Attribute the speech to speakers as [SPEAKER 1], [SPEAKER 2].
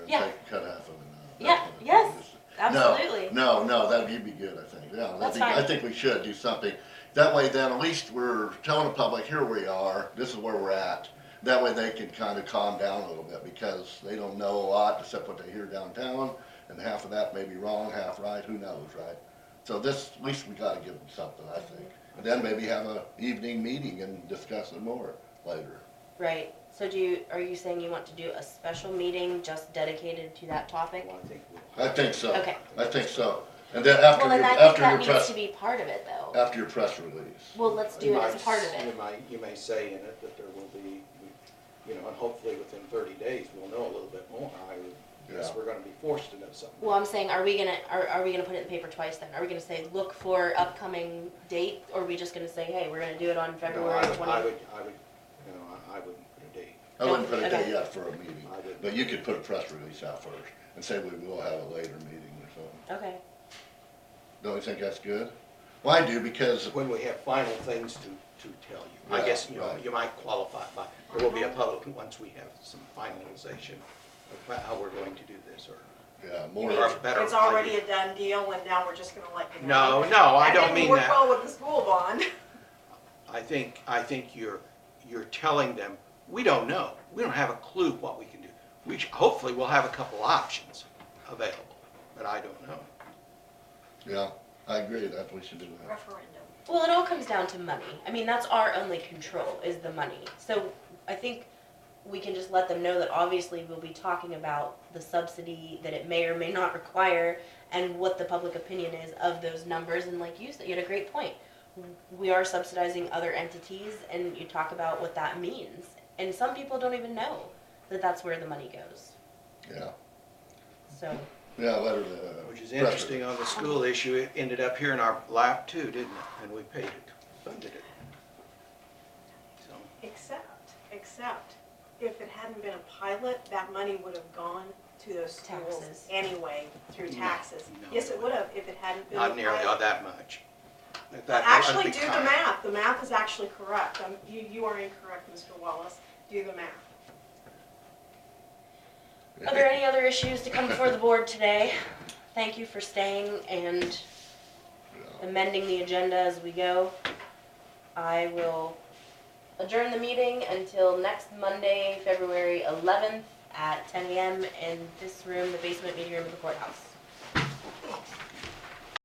[SPEAKER 1] Yeah.
[SPEAKER 2] take, cut half of uh, it out.
[SPEAKER 1] Yeah,
[SPEAKER 2] That's what it-
[SPEAKER 1] yes,
[SPEAKER 2] just- No,
[SPEAKER 1] absolutely.
[SPEAKER 2] No, no, that'd you'd be good, I think, yeah, I
[SPEAKER 1] That's
[SPEAKER 2] think, I
[SPEAKER 1] fine.
[SPEAKER 2] think we should do something, that way then at least we're telling the public, here we are, this is where we're at. That way they can kinda calm down a little bit, because they don't know a lot except what they hear downtown, and half of that may be wrong, half right, who knows, right? So this, at least we gotta give them something, I think, and then maybe have a evening meeting and discuss it more later.
[SPEAKER 1] Right, so do you, are you saying you want to do a special meeting just dedicated to that topic?
[SPEAKER 3] Well, I think we'll-
[SPEAKER 2] I think so.
[SPEAKER 1] Okay.
[SPEAKER 2] I think so, and then after
[SPEAKER 1] Well,
[SPEAKER 2] your,
[SPEAKER 1] then I think
[SPEAKER 2] after your Uh,
[SPEAKER 1] that needs
[SPEAKER 2] press,
[SPEAKER 1] to be part of it though.
[SPEAKER 2] after your press release.
[SPEAKER 1] Well, let's do
[SPEAKER 3] You
[SPEAKER 1] it as
[SPEAKER 3] might-
[SPEAKER 1] part of it.
[SPEAKER 3] You might, you may say in it that there will be, you know, and hopefully within thirty days, we'll know a little bit more. I would guess
[SPEAKER 2] Yeah.
[SPEAKER 3] we're gonna be forced to know something.
[SPEAKER 1] Well, I'm saying, are we gonna, are, are we gonna put it in the paper twice then? Are we gonna say, look for upcoming date, or are we just gonna say, hey, we're gonna do it on
[SPEAKER 3] No, I
[SPEAKER 1] February
[SPEAKER 3] would- I
[SPEAKER 1] twenty?
[SPEAKER 3] would, I would, you know, I- I wouldn't put a date.
[SPEAKER 2] I wouldn't put a
[SPEAKER 1] Okay.
[SPEAKER 2] date yet for a meeting,
[SPEAKER 3] I wouldn't.
[SPEAKER 2] but you could put a press release out first and say we will have a later meeting or something.
[SPEAKER 1] Okay,
[SPEAKER 2] Don't you think that's good? Well, I do because,
[SPEAKER 3] When we have final things to, to tell you. I
[SPEAKER 2] Yeah,
[SPEAKER 3] guess, you know,
[SPEAKER 2] right.
[SPEAKER 3] you might qualify by, there will be a public, once we have some finalization of how we're going to do this or.
[SPEAKER 2] yeah,
[SPEAKER 4] You
[SPEAKER 2] more,
[SPEAKER 4] mean,
[SPEAKER 2] yeah,
[SPEAKER 3] better
[SPEAKER 4] it's already
[SPEAKER 3] idea.
[SPEAKER 4] a done deal and now we're just gonna let you
[SPEAKER 3] No,
[SPEAKER 4] know?
[SPEAKER 3] no, I don't
[SPEAKER 4] That
[SPEAKER 3] mean
[SPEAKER 4] didn't work
[SPEAKER 3] that.
[SPEAKER 4] well with the school bond.
[SPEAKER 3] I think, I think you're, you're telling them, we don't know. We don't have a clue what we can do. We, sh- hopefully, we'll have a couple options available, but I don't know.
[SPEAKER 2] I agree, that we should do that.
[SPEAKER 4] Referendum.
[SPEAKER 1] well, it all comes down to money. I mean, that's our only control, is the money. So I think we can just let them know that obviously we'll be talking about the subsidy that it may or may not require and what the public opinion is of those numbers, and like you said, you had a great point. We are subsidizing other entities, and you talk about what that means. And some people don't even know that that's where the money goes,
[SPEAKER 2] Yeah,
[SPEAKER 1] so.
[SPEAKER 2] yeah, let her, uh.
[SPEAKER 3] Which is
[SPEAKER 2] press
[SPEAKER 3] interesting on the school issue, it ended up here in our lap too, didn't it? And we paid it, funded it. So,
[SPEAKER 4] Except, except, if it hadn't been a pilot, that money would have gone to those
[SPEAKER 1] Taxes.
[SPEAKER 4] schools anyway, through
[SPEAKER 3] No,
[SPEAKER 4] taxes.
[SPEAKER 3] no.
[SPEAKER 4] Yes, it would have, if it hadn't been.
[SPEAKER 3] Not
[SPEAKER 4] a
[SPEAKER 3] nearly
[SPEAKER 4] pilot.
[SPEAKER 3] that much. At that- at
[SPEAKER 4] Actually, do the
[SPEAKER 3] time.
[SPEAKER 4] math, the math is actually correct, Um, you, you are incorrect, Mr. Wallace, do the math.
[SPEAKER 2] it.
[SPEAKER 1] Are there any other issues to come before the board today? Thank you for staying and amending the agenda as we go. I will adjourn the meeting until next Monday, February eleventh at ten AM in this room, the basement meeting room of the courthouse.